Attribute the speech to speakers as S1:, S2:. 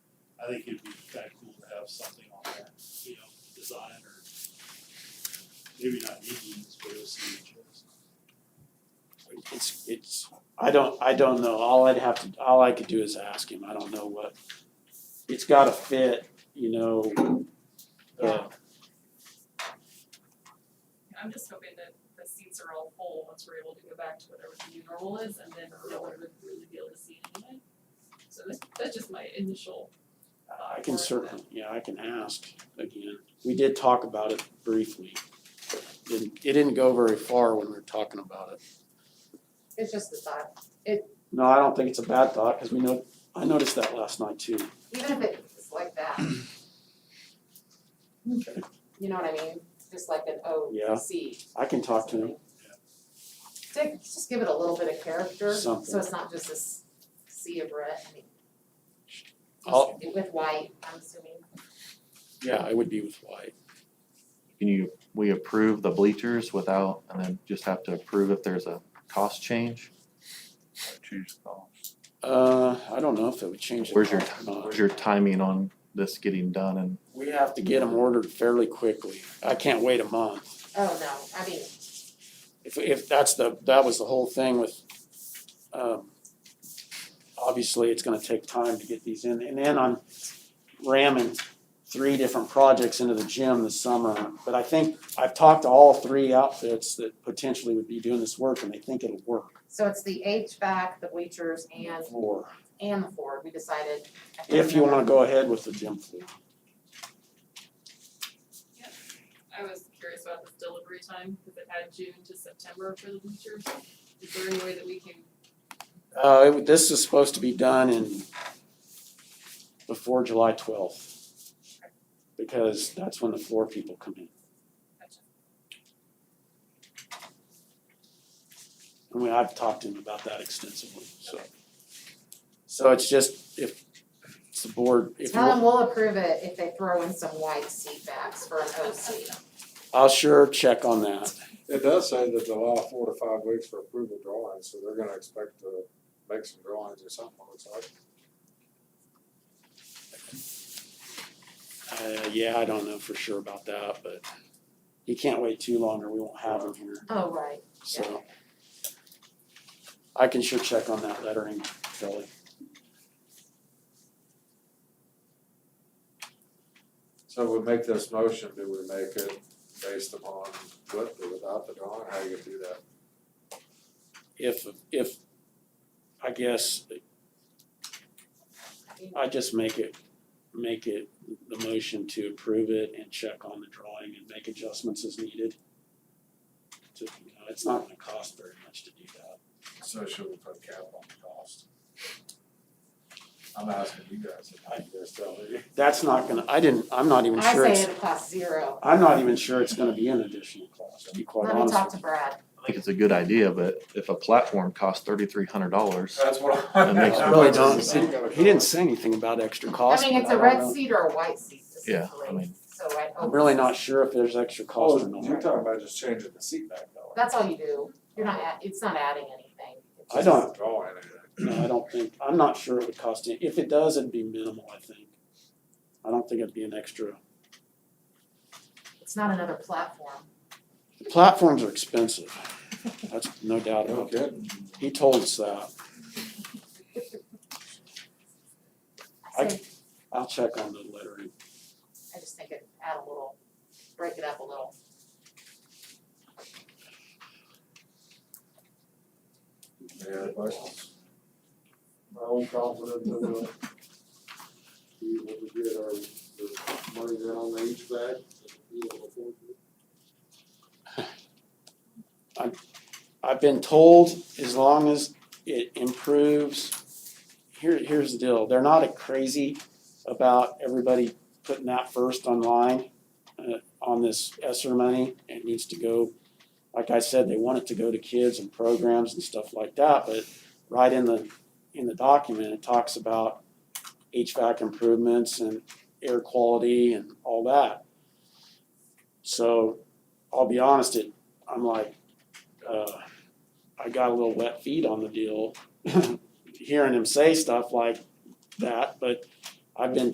S1: think it'd be kinda cool to have something on that, you know, design or maybe not meetings, but it'll see each
S2: It's it's, I don't, I don't know, all I'd have to, all I could do is ask him, I don't know what, it's gotta fit, you know. uh,
S3: I'm just hoping that the seats are all full once we're able to go back to whatever the new normal is and then no one would really be able to see anyway. So that's that's just my initial thought.
S2: I can
S3: for it.
S2: certainly, yeah, I can ask again, we did talk about it briefly. Didn't, it didn't go very far when we were talking about it.
S4: It's just the thought,
S2: No, I don't think it's a bad thought, cause we know, I noticed that last night too.
S4: even if it's like that. You know what I mean? Just like an O
S2: Yeah.
S4: C.
S2: I can talk to him,
S4: Dick, just give it a little bit of character, so
S2: Something.
S4: it's not just this sea of red, I mean.
S2: I'll-
S4: just With white, I'm assuming.
S2: yeah, it would be with White.
S5: Can you, we approve the bleachers without, and then just have to approve if there's a cost change?
S6: Choose thoughts.
S2: Uh, I don't know if it would change the.
S5: Where's your,
S2: cost or not.
S5: where's your timing on this getting done and
S2: We have to get them ordered fairly quickly. I can't wait a month.
S4: Oh, no, I mean,
S2: If, if that's the, that was the whole thing with, um, obviously, it's gonna take time to get these in. And then I'm ramming three different projects into the gym this summer. But I think, I've talked to all three outfits that potentially would be doing this work, and they think it'll work.
S4: so it's the HVAC, the bleachers and
S2: Floor,
S4: and the floor, we decided. I can't
S2: if you wanna
S4: remember.
S2: go ahead with the gym floor.
S3: I was curious about this delivery time, cause it had June to September for the bleachers. Is there any way that we can,
S2: Uh, it- this is supposed to be done in before July twelfth. Because that's when the floor people come in. I mean, I've talked to him about that extensively, so. So it's just if it's the board, if you,
S4: Tell them
S2: want-
S4: we'll approve it if they throw in some white seat backs for an O C.
S2: I'll sure check on that.
S7: It does say that they allow four to five weeks for approval drawings, so they're gonna expect to make some drawings or something, it looks like.
S2: Uh, yeah, I don't know for sure about that, but he can't wait too long or we won't have him here,
S4: Oh, right,
S2: so. I can sure check on that lettering, Kelly.
S7: So we make this motion, do we make it based upon with or without the drawing, how you do that?
S2: if if, I guess, I just make it, make it the motion to approve it and check on the drawing and make adjustments as needed. To, you know, it's not gonna cost very much to do that.
S7: So should we put a cap on the cost? I'm asking you guys, if you guys tell me.
S2: That's not gonna, I didn't, I'm not even
S4: I
S2: sure
S4: say
S2: it's,
S4: it'll cost zero.
S2: I'm not even sure it's gonna be an additional cost, to be quite
S4: Let me
S2: honest
S4: talk
S2: with
S4: to
S2: you.
S4: Brad.
S5: I think it's a good idea, but if a platform costs thirty-three hundred dollars,
S7: That's what
S5: That makes
S2: I
S5: sense.
S2: really
S5: It's
S2: don't,
S5: just-
S2: see- he didn't say anything about extra
S4: I
S2: cost.
S4: mean, it's
S2: but
S4: a
S2: I
S4: red
S2: don't know.
S4: seat or a white seat
S5: yeah, I
S4: essentially,
S5: mean,
S4: so I hope.
S2: I'm really not sure if there's extra
S7: Oh,
S2: cost or not.
S7: you're talking about just changing the seat back though.
S4: That's all you do, you're not add, it's not adding anything. It's
S2: I
S4: just-
S2: don't-
S7: Drawing it.
S2: No, I don't think, I'm not sure it would cost any, if it does, it'd be minimal, I think. I don't think it'd be an extra,
S4: It's not another platform.
S2: the platforms are expensive, that's no doubt
S7: No
S2: about it.
S7: kidding.
S2: He told us that, I-
S4: I think,
S2: I'll check on the lettering.
S4: I just think it add a little, break it up a little.
S7: Any other questions? I'm confident that we'll be able to get our, the money down on the HVAC, and be able to afford it.
S2: I've been told as long as it improves, here, here's the deal, they're not crazy about everybody putting that first online uh, on this ESSER money. It needs to go, like I said, they want it to go to kids and programs and stuff like that, but right in the, in the document, it talks about HVAC improvements and air quality and all that. So I'll be honest, it, I'm like, uh, I got a little wet feet on the deal, hearing him say stuff like that, but I've been